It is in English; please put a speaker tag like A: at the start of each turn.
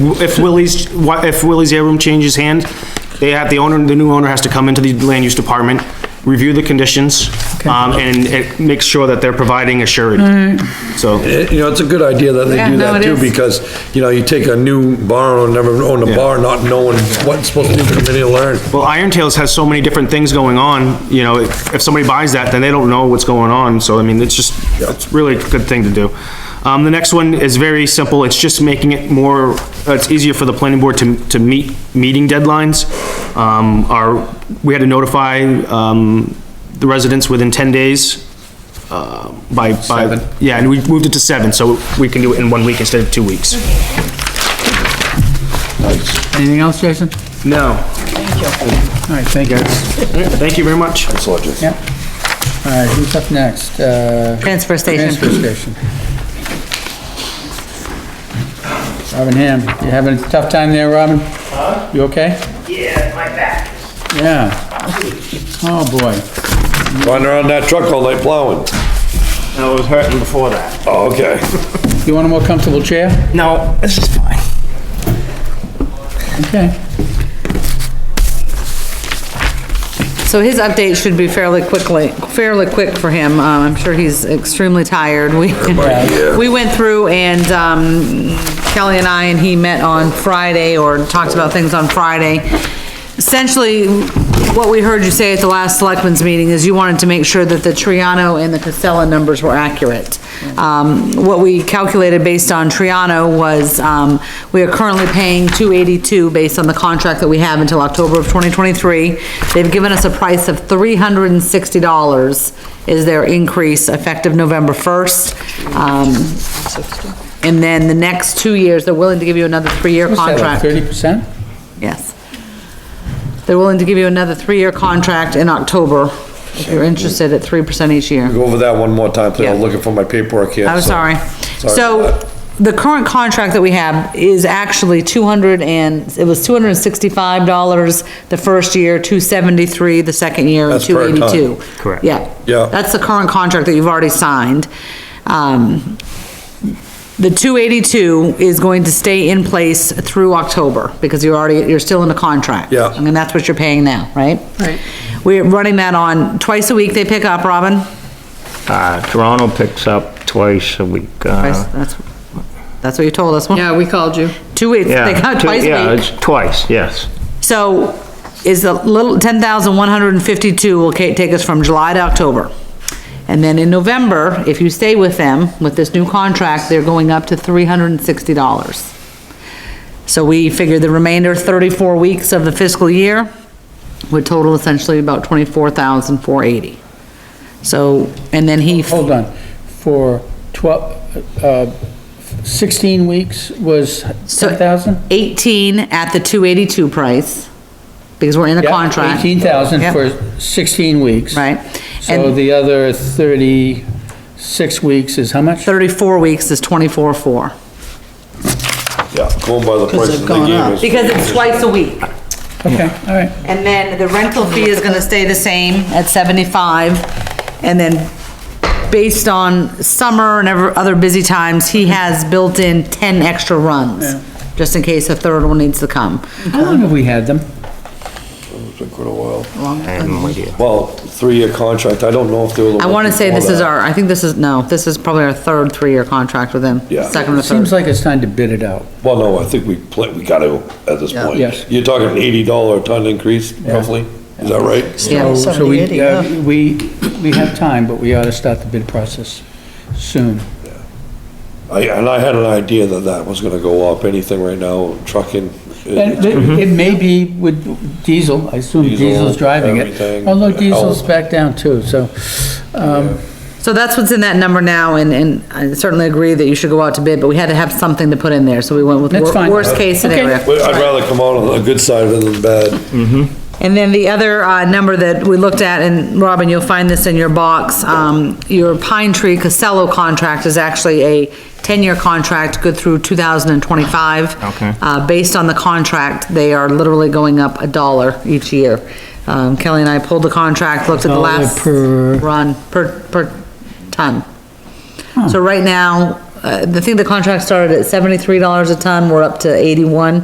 A: If Willie's, wha- if Willie's Air Room changes hand, they have, the owner, the new owner has to come into the land use department, review the conditions, um, and it makes sure that they're providing a surety. So,
B: It- You know, it's a good idea that they
C: Yeah,
B: do
C: no,
B: that
C: it
B: too,
C: is.
B: because, you know, you take a new bar owner, never owned a
A: Yeah.
B: bar, not knowing what it's supposed to do, committee to learn.
A: well, Iron Tales has so many different things going on, you know, if if somebody buys that, then they don't know what's going on, so I mean, it's just, it's really a good thing to do. Um, the next one is very simple, it's just making it more, it's easier for the planning board to, to meet, meeting deadlines. Um, our, we had to notify, um, the residents within ten days, uh, by, by, yeah, and we moved it to seven, so we can do it in one week instead of two weeks.
D: Anything else, Jason?
A: No,
D: All right, thank you.
A: thank you very much.
D: Yep. All right, who's up next? Uh, Transfer
C: Transfer station.
D: station. Robin Ham, you having a tough time there, Robin? Huh? You okay? Yeah, my back. Yeah. Oh, boy.
B: Riding around that truck all night plowing.
A: I was hurting before that.
B: Oh, okay.
D: You want a more comfortable chair?
A: No, this is fine.
D: Okay.
C: So his update should be fairly quickly, fairly quick for him. Uh, I'm sure he's extremely tired. We, we went through and, um, Kelly and I and he met on Friday or talked about things on Friday. Essentially, what we heard you say at the last selectmen's meeting is you wanted to make sure that the Triano and the Casella numbers were accurate. Um, what we calculated based on Triano was, um, we are currently paying two eighty-two based on the contract that we have until October of twenty twenty-three. They've given us a price of three hundred and sixty dollars is their increase effective November first. Um, and then the next two years, they're willing to give you another three-year contract.
D: Thirty percent?
C: Yes. They're willing to give you another three-year contract in October, if you're interested at three percent each year.
B: Go over that one more time, please. I'm
C: Yeah.
B: looking for my paperwork here.
C: I'm
B: so-
C: sorry.
B: Oh, Sorry
C: So,
B: about
C: the current contract that we have is actually two hundred and, it was two hundred and sixty-five dollars the first year, two seventy-three the second year, and
B: That's per
C: two
B: ton.
C: eighty-two.
A: Correct.
C: Yeah.
B: Yeah.
C: That's the current contract that you've already signed. Um, the two eighty-two is going to stay in place through October, because you're already, you're still in the contract.
B: Yeah.
C: And that's what you're paying now, right?
D: Right.
C: We're running that on, twice a week they pick up, Robin?
E: Uh, Toronto picks up twice a week.
C: Twice,
E: uh,
C: That's, that's what you told us.
F: Yeah, we called you.
C: Two weeks, they
E: Yeah,
C: got
E: two-
C: twice
E: Yeah,
C: a week.
E: it's twice, yes.
C: So is the little, ten thousand one hundred and fifty-two will ca- take us from July to October. And then in November, if you stay with them, with this new contract, they're going up to three hundred and sixty dollars. So we figure the remainder thirty-four weeks of the fiscal year would total essentially about twenty-four thousand four eighty. So, and then he,
D: Hold on. For twelve, uh, sixteen weeks was
C: So-
D: ten thousand?
C: eighteen at the two eighty-two price, because we're in a contract.
D: Eighteen thousand
C: Yep.
D: for sixteen weeks.
C: Right.
D: So
C: And-
D: the other thirty-six weeks is how much?
C: 34 weeks is 24-4.
B: Yeah, going by the prices they gave us.
C: Because it's twice a week.
D: Okay, all right.
C: And then the rental fee is gonna stay the same at 75. And then, based on summer and ever, other busy times, he has built in 10 extra runs, just in case a third one needs to come.
D: How long have we had them?
B: It's been quite a while.
E: I have no idea.
B: Well, three-year contract, I don't know if they were. the
C: I
B: ones
C: wanna say
B: before
C: this is
B: that.
C: our, I think this is, no, this is probably our third three-year contract with him.
B: Yeah.
C: Second or
D: Seems
C: third.
D: like it's time to bid it out.
B: Well, no, I think we play, we gotta at this point.
D: Yes.
B: You're talking eighty dollar a ton increase roughly, is that right?
C: Yeah.
D: So- so we- yeah, We, we have time, but we ought to start the bid process soon.
B: I, and I had an idea that that was gonna go up, anything right now, trucking.
D: And
B: it-
D: it it may be with diesel, I assume
B: Mm-hmm. Diesel,
D: diesel's driving it.
B: everything,
D: Although diesel's
B: health.
D: back down too, so, um,
C: So that's what's in that number now, and, and I certainly agree that you should go out to bid, but we had to have something to put in there, so we went with
D: That's
C: wor-
D: fine.
C: worst-case
D: Okay.
C: scenario.
B: But I'd rather come out on the good side of it than the bad.
C: And then the other, uh, number that we looked at, and Robin, you'll find this in your box, um, your Pine Tree Casello contract is actually a ten-year contract, good through two thousand and twenty-five.
E: Okay.
C: Uh, based on the contract, they are literally going up a dollar each year. Um, Kelly and I pulled the contract, looked at the
D: Dollar
C: last
D: per-
C: run, per, per ton. So right now, uh, I think the contract started at seventy-three dollars a ton, we're up to eighty-one.